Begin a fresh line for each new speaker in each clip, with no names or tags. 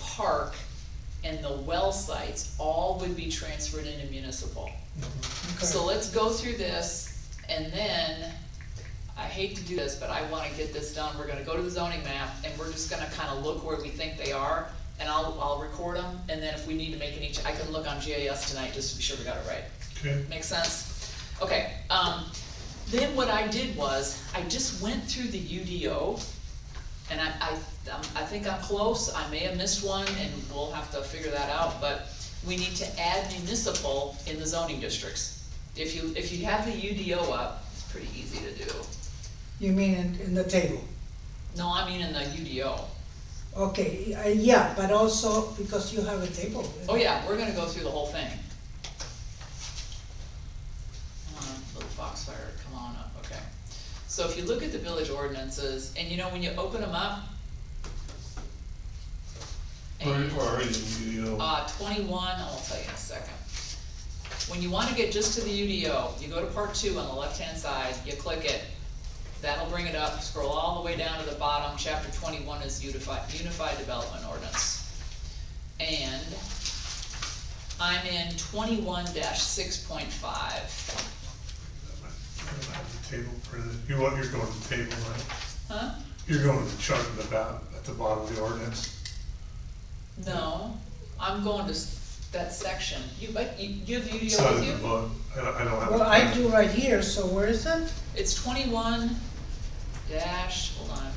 park and the well sites all would be transferred into municipal. So let's go through this, and then, I hate to do this, but I wanna get this done, we're gonna go to the zoning map, and we're just gonna kinda look where we think they are, and I'll, I'll record them, and then if we need to make any, ch- I can look on GIS tonight, just to be sure we got it right.
Okay,
Make sense? Okay, um, then what I did was, I just went through the UDO, and I, I, um, I think I'm close, I may have missed one, and we'll have to figure that out, but we need to add municipal in the zoning districts. If you, if you have the UDO up, it's pretty easy to do.
You mean in, in the table?
No, I mean in the UDO.
Okay, uh, yeah, but also because you have a table.
Oh yeah, we're gonna go through the whole thing. Come on, Um, little Foxfire, come on up, okay. So if you look at the village ordinances, and you know, when you open them up.
where,
and-
where are you, you
Oh,
know?
uh, twenty-one, I'll tell you in a second. When you wanna get just to the UDO, you go to part two on the left-hand side, you click it. That'll bring it up, scroll all the way down to the bottom, chapter twenty-one is unified, unified development ordinance. And I'm in twenty-one six point five,
The Table printed, you want, you're going to the table, right?
huh?
You're going to the chart at the bottom, at the bottom of the ordinance.
No, I'm going to s- that section, you, but you, you have
It's
UDO
not
with
in the
you?
book, I don't, I don't have. it
Well, I
printed.
do right here, so where is it?
It's twenty-one dash, hold on.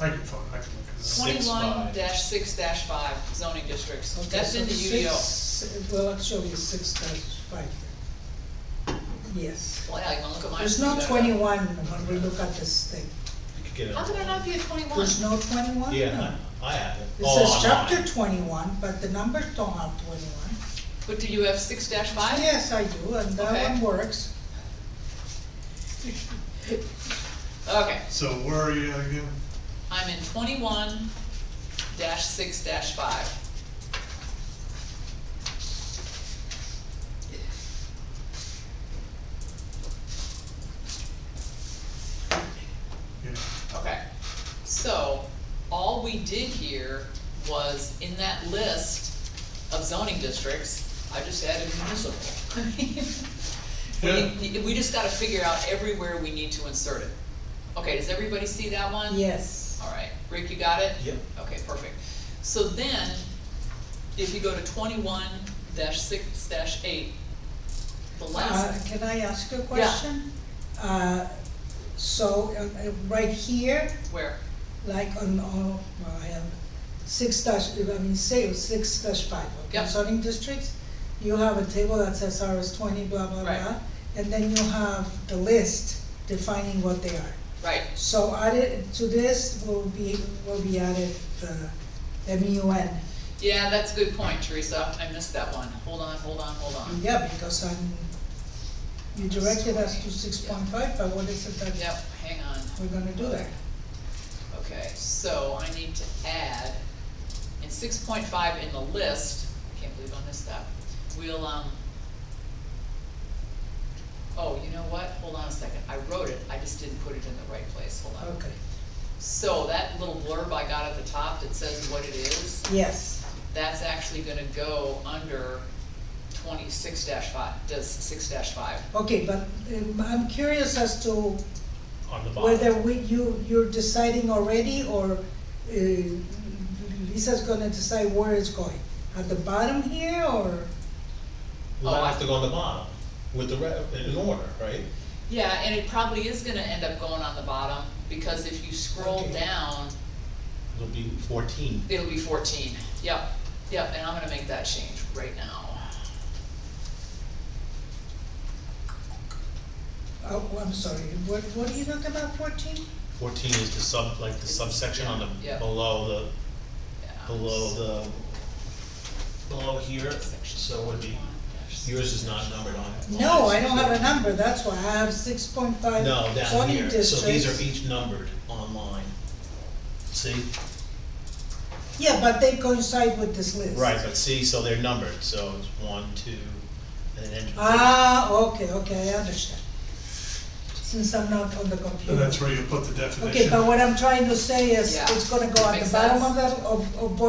I can find, I can look it up.
Twenty-one
6-5.
dash six dash five zoning districts,
Okay,
that's in the E
so
UDO.
six- Well, actually, it's six times five. Yes.
Well, yeah, you wanna look at mine?
There's no twenty-one when we look at this thing.
You could get it.
How could there not be a twenty-one?
There's no twenty-one?
Yeah, I I have it.
It
Oh,
says
online.
chapter twenty-one, but the numbers don't have twenty-one.
But do you have six dash five?
Yes, I do, and
Okay.
that one works.
Okay,
So where are you at again?
I'm in twenty-one dash six dash five.
Yeah,
Okay, so, all we did here was in that list of zoning districts, I just added municipal. We, we just gotta figure out everywhere we need to insert it. Okay, does everybody see that one?
Yes.
All right, Rick, you got it?
Yep.
Okay, perfect. So then, if you go to twenty-one dash six dash eight, the
Uh,
last,
Can I ask a question? Uh, So, uh, uh, right here,
where?
like on, on, well, I have six dash, I mean, say, six dash five, okay,
Yeah.
zoning districts, you have a table that says RS twenty, blah, blah,
Right.
blah, and then you have the list defining what they are.
Right,
So added, to this will be, will be added the MUN,
yeah, that's a good point, Teresa, I missed that one, hold on, hold on, hold on.
yeah, because I'm, you directed us to six point five, but what is it that
Yep, hang on.
we're gonna do there?
Okay, so I need to add, in six point five in the list, I can't believe I missed that, we'll, um, oh, you know what, hold on a second, I wrote it, I just didn't put it in the right place, hold on.
Okay,
So that little blurb I got at the top that says what it is,
yes,
that's actually gonna go under twenty-six five, does six five.
okay, but um, I'm curious as to
On the
Whether
bottom.
we, you, you're deciding already, or uh, Lisa's gonna decide where it's going? At the bottom here, or,
Oh,
Well, I
I-
have to go on the bottom with the re, in order, right?
Yeah, and it probably is gonna end up going on the bottom, because if you scroll
Okay.
down,
It'll be fourteen.
It'll be fourteen, yep, yep, and I'm gonna make that change right now.
oh, I'm sorry, what, what are you talking about, fourteen?
Fourteen is the sub, like the subsection on
Yeah.
the, below
Yeah.
the, below the, below here, so it would be, yours is not numbered on. on
No,
this.
I don't have a number, that's why, I have six point five
No, down
zoning
here, so these are
districts.
each numbered online. See?
Yeah, but they coincide with this list.
Right, but see, so they're numbered, so it's one, two, and then.
Ah, okay, okay, I understand. Since I'm not on the computer.
and that's where you put the definition.
Okay, but what I'm trying to say is,
Yeah,
it's gonna go at
makes
the bottom
sense.
of that, of, of both